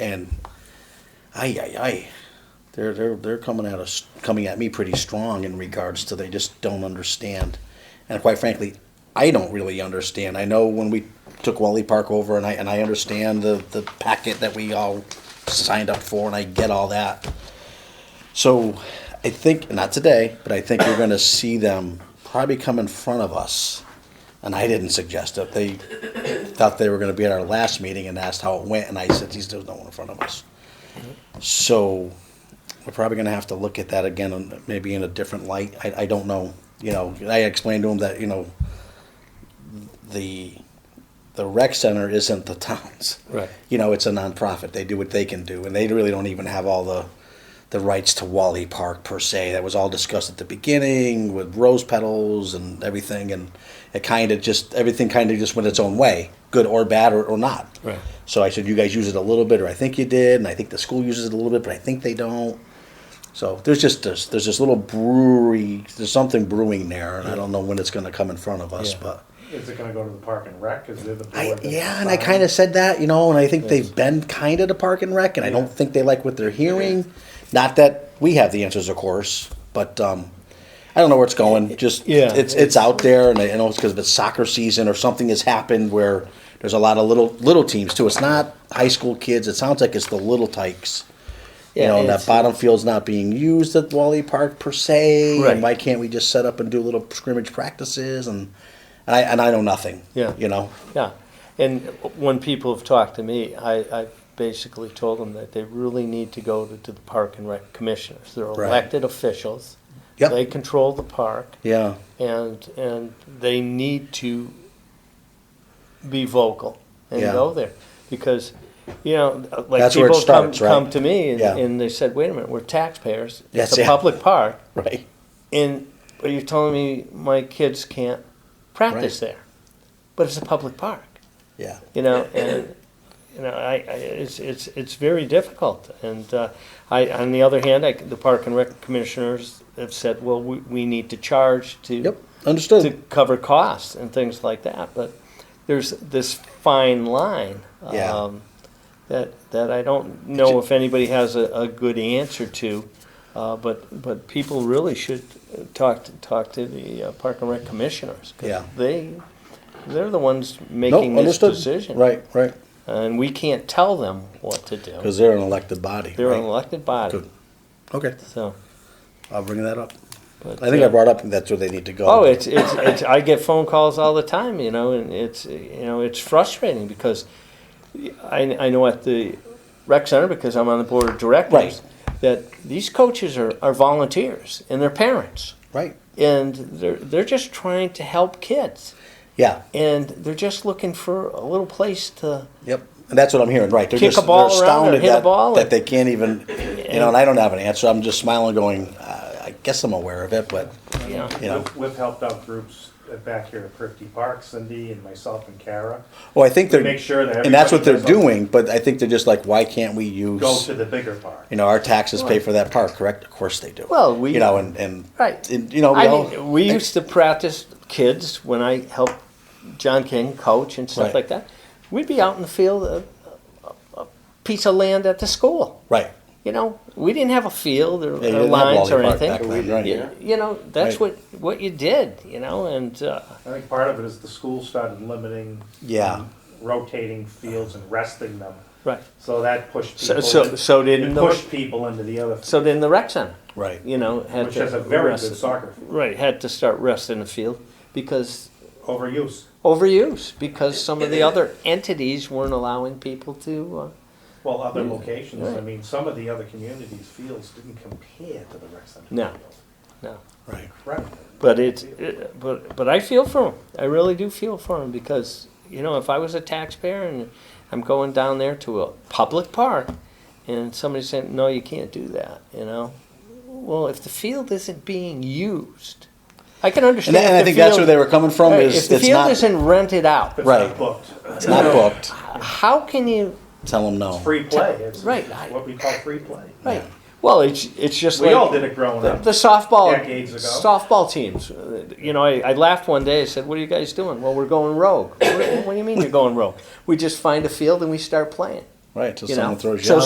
and ay ay ay, they're they're they're coming at us coming at me pretty strong in regards to they just don't understand, and quite frankly, I don't really understand. I know when we took Wally Park over, and I and I understand the the packet that we all signed up for, and I get all that. So, I think not today, but I think we're going to see them probably come in front of us. And I didn't suggest it. They thought they were going to be at our last meeting and asked how it went, and I said, "Geez, there's no one in front of us." So we're probably going to have to look at that again, and maybe in a different light. I, I don't know. You know, I explained to him that you know the the rec center isn't the town's. Right. You know, it's a nonprofit. They do what they can do, and they really don't even have all the the rights to Wally Park per se. That was all discussed at the beginning with rose petals and everything, and it kind of just everything kind of just went its own way, good or bad or, or not. Right. So I said, you guys use it a little bit, or I think you did, and I think the school uses it a little bit, but I think they don't. So there's just this, there's this little brewery, there's something brewing there, and I don't know when it's going to come in front of us, Yeah. but. Is it gonna go to the park and rec? Is it the I, board? that yeah, and I decides? kind of said that, you know, and I think they've been kind of to park and rec, and I don't think they like what they're hearing. Not that we have the answers, of course, but um, I don't know where it's going. Just Yeah. it's it's out there, and I I know it's because it's soccer season or something has happened where there's a lot of little little teams too. It's not high school kids. It sounds like it's the little tykes. you Yeah, know, and it's- that bottom field's not being used at Wally Park per se. Right. And why can't we just set up and do little scrimmage practices? And, and I and I know nothing. Yeah. you know. Yeah, and when people have talked to me, I, I basically told them that they really need to go to, to the park and rec commissioners. They're Right. elected officials. Yep. They control the park, Yeah. and and they need to be vocal and Yeah. go there because. You know, like That's where it people starts, come, right? come to me and, Yeah. and they said, "Wait a minute, we're taxpayers. Yes, it's a yeah. public park, Right. and are you telling me my kids can't practice there? But it's a public park. Yeah. you know, and you know, I, I it's it's it's very difficult. And uh, I, on the other hand, I, the park and rec commissioners have said, well, we, we need to charge to Yep. to Understood. cover costs and things like that. But there's this fine line. Yeah. Um, that, that I don't know if anybody has a, a good answer to, uh, but but people really should talk to, talk to the uh, park and rec commissioners. 'cause Yeah. they they're the ones No, making this understood. decision Right. Right. and we can't tell them what to do. Because they're an elected body. They're right? an elected body, Good. Okay. so. I'll bring that up. but, I think uh, I brought up that's where they need to go. Oh, it's, it's it's I get phone calls all the time, you know, and it's you know it's frustrating because I I know at the rec center because I'm on the board of directors Right. that these coaches are, are volunteers and they're parents right. and they're they're just trying to help kids Yeah. and they're just looking for a little place to Yep. And that's what I'm hearing. Right. They're Kick a just ball they're around or astounded hit a that, ball that or- they can't even. You know, and I don't have an answer. I'm just smiling, going, uh, I guess I'm aware of it, but you know. you know. We've- We've helped out groups back here at Prifty Park, Cindy and myself and Kara. Well, I think they're Make sure that and that's what they're everybody knows all- doing. But I think they're just like, why can't we use? Go to the bigger park. you know, our taxes pay for that park, correct? Of course they do. Well, we- you know, and, and Right. and, you know, we I all, mean, we used to practice kids when I helped John King coach and stuff Right. like that. We'd be out in the field, a, a- a piece of land at the school. right. You know, we didn't have a field Yeah, or, you or didn't have lines or Wally Park back anything. then, right? You, you know, that's Right. what what you did. You know, and uh, I think part of it is the school started limiting. Yeah. um, Rotating fields and resting them, right. so that pushed So- people. so- in- so didn't it the- Pushed people into the other, So then the rec center, Right. you know, had which to has a very rest- good soccer, field. Right, had to start resting the field because overuse. overuse because some of the other entities weren't allowing people to. Uh, Well, other locations, I Right. mean, some of the other communities' fields didn't compare to the rec center. No. field. no. Right. Right. But it's it, but but I feel for him. I really do feel for him because you know if I was a taxpayer and I'm going down there to a public park, and somebody said no, you can't do that. You know, well if the field isn't being used, I can And, understand. and if I the think field, that's where they were coming from. Right, Is if the it's field not isn't rented out, It's not Right. booked. it's not booked. how can you Tell them no. Free play. It's Right. it's what we call free play. right? Well, it's it's just We like, all did it growing The, up. the softball Decades ago. softball teams. uh, You know, I, I laughed one day. I said, "What are you guys doing?" Well, we're going rogue. what, what do you mean you're going rogue? We just find a field and we start playing. right? Till You someone know, throws you so out.